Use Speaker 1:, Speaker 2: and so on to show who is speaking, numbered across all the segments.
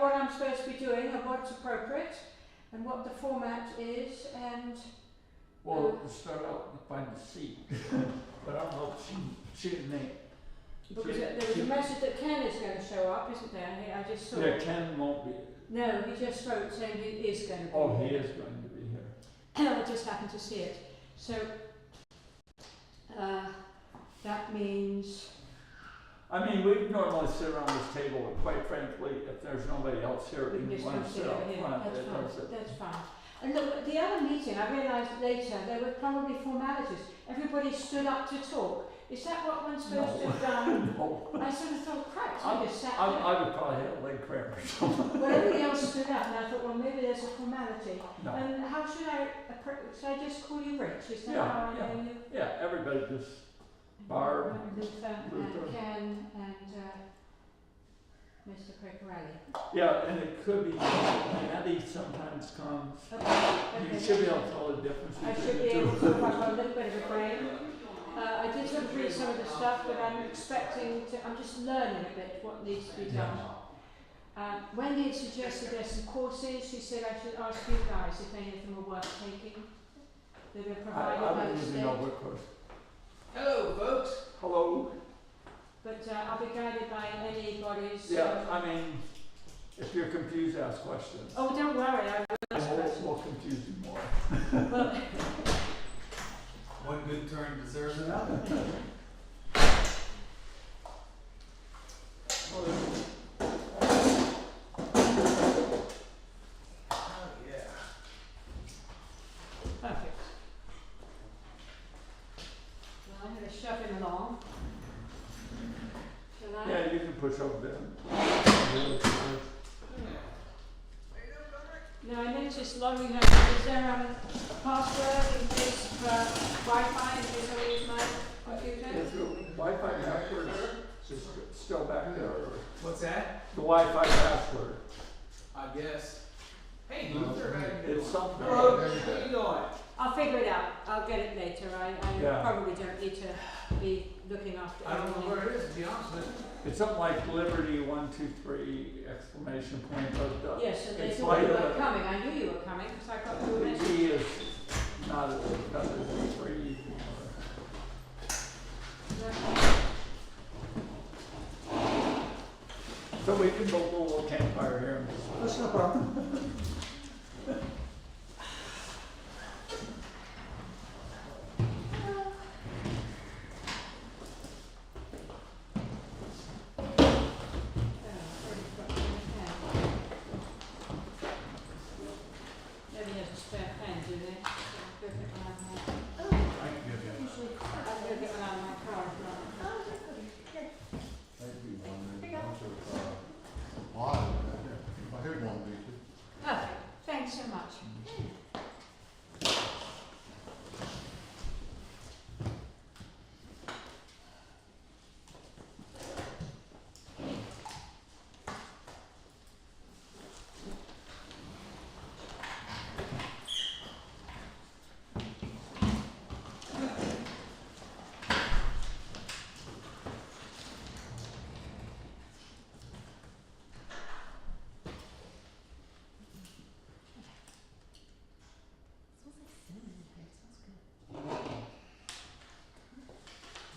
Speaker 1: what I'm supposed to be doing and what's appropriate and what the format is and
Speaker 2: Well, to start out, you find the seat, but I don't know if she, she didn't make.
Speaker 1: because there was a message that Ken is going to show up, isn't there? He- I just saw.
Speaker 2: Yeah, Ken won't be,
Speaker 1: No, he just wrote saying he is going to be.
Speaker 2: oh,
Speaker 1: here.
Speaker 2: he is going to be here.
Speaker 1: I just happened to see it. So uh, that means
Speaker 2: I mean, we normally sit around this table, and quite frankly, if there's nobody else here,
Speaker 1: we can
Speaker 2: we
Speaker 1: just
Speaker 2: want to sit
Speaker 1: consider
Speaker 2: up
Speaker 1: him.
Speaker 2: front,
Speaker 1: That's
Speaker 2: it
Speaker 1: fine.
Speaker 2: doesn't-
Speaker 1: That's fine. And look, the other meeting, I realised later, there were probably formalities. Everybody stood up to talk. Is that what one's supposed to
Speaker 2: No.
Speaker 1: have done?
Speaker 2: No,
Speaker 1: I sort of thought, crap,
Speaker 2: I-
Speaker 1: I just sat
Speaker 2: I,
Speaker 1: down.
Speaker 2: I would probably have a leg cramp or something,
Speaker 1: Well, everybody else stood up, and I thought, well, maybe there's a formality.
Speaker 2: no,
Speaker 1: And how should I approach? Should I just call you Rich? Is that
Speaker 2: Yeah,
Speaker 1: how I
Speaker 2: yeah.
Speaker 1: know you?
Speaker 2: yeah, everybody just, Barb,
Speaker 1: Luther,
Speaker 2: Luther.
Speaker 1: and Ken, and uh, Mr. Piccarelli.
Speaker 2: yeah, and it could be, Maddie sometimes comes,
Speaker 1: Okay,
Speaker 2: you
Speaker 1: okay.
Speaker 2: should be able to tell the difference
Speaker 1: I
Speaker 2: between
Speaker 1: should
Speaker 2: the
Speaker 1: be able
Speaker 2: two.
Speaker 1: to have a little bit of a brain. Uh, I did sort of read some of the stuff, but I'm expecting to, I'm just learning a bit what needs to be done. Um, Wendy had suggested there's some courses, she said I should ask you guys if any of them are worth taking. That are
Speaker 2: I,
Speaker 1: provided by
Speaker 2: I
Speaker 1: the
Speaker 2: don't even
Speaker 1: state.
Speaker 2: know what course,
Speaker 3: Hello, folks.
Speaker 2: hello?
Speaker 1: But uh, I'll be guided by anybody's.
Speaker 2: Yeah, I mean, if you're confused, ask questions.
Speaker 1: Oh, don't worry, I will
Speaker 2: And
Speaker 1: ask
Speaker 2: we'll,
Speaker 1: questions.
Speaker 2: we'll confuse you more.
Speaker 1: Well,
Speaker 3: One good turn deserves another. Oh, yeah.
Speaker 1: Perfect. Well, I'm gonna shove him along. Shall I?
Speaker 2: Yeah, you can push over them.
Speaker 1: No, I meant just logging her, is there um, a password in case for Wi-Fi, in case I use my
Speaker 2: If
Speaker 1: computer?
Speaker 2: your Wi-Fi password is still back there, or
Speaker 3: What's that?
Speaker 2: the Wi-Fi password,
Speaker 3: I guess. Hey, Luther, how you doing?
Speaker 2: it's something.
Speaker 3: Hello, how you doing?
Speaker 1: I'll figure it out, I'll get it later, I, I
Speaker 2: Yeah.
Speaker 1: probably don't need to be looking after
Speaker 3: I don't know
Speaker 1: everything.
Speaker 3: where it is, to be honest with you.
Speaker 2: It's something like Liberty one, two, three exclamation point, oh, but the,
Speaker 1: Yes, and they
Speaker 2: It's
Speaker 1: thought you
Speaker 2: like,
Speaker 1: were
Speaker 2: uh,
Speaker 1: coming, I knew you were coming, because I got your
Speaker 2: the
Speaker 1: message.
Speaker 2: E is not as, not as free. So we can build a little campfire here and just.
Speaker 3: That's no problem.
Speaker 1: Nobody has a spare pen, do they? Go get one out of my,
Speaker 3: I can give you.
Speaker 1: I'll go get one out of my car if not.
Speaker 4: That'd be one, there's a bunch of, uh, water right there. I heard one, did you?
Speaker 1: Perfect, thanks so much.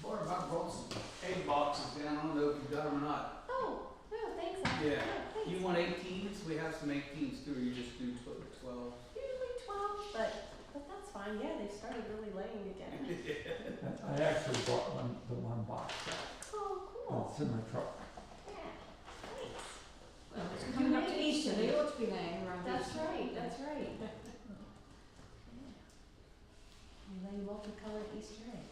Speaker 3: Boy, if I brought some egg boxes down, I don't know if you got them or not.
Speaker 5: Oh, no, thanks. I-
Speaker 3: Yeah.
Speaker 5: no, thanks.
Speaker 3: You want eighteens? We have some eighteens too, or you just do tw- twelve?
Speaker 5: Usually twelve, but but that's fine. Yeah, they started really laying again.
Speaker 2: I actually bought one, the one box,
Speaker 5: Oh, cool.
Speaker 2: it's in my truck.
Speaker 5: Yeah, thanks.
Speaker 1: Well, it's coming up to Easter, they ought to be laying around
Speaker 5: That's
Speaker 1: Easter.
Speaker 5: right. That's right. Yeah. We lay multicolored Easter eggs.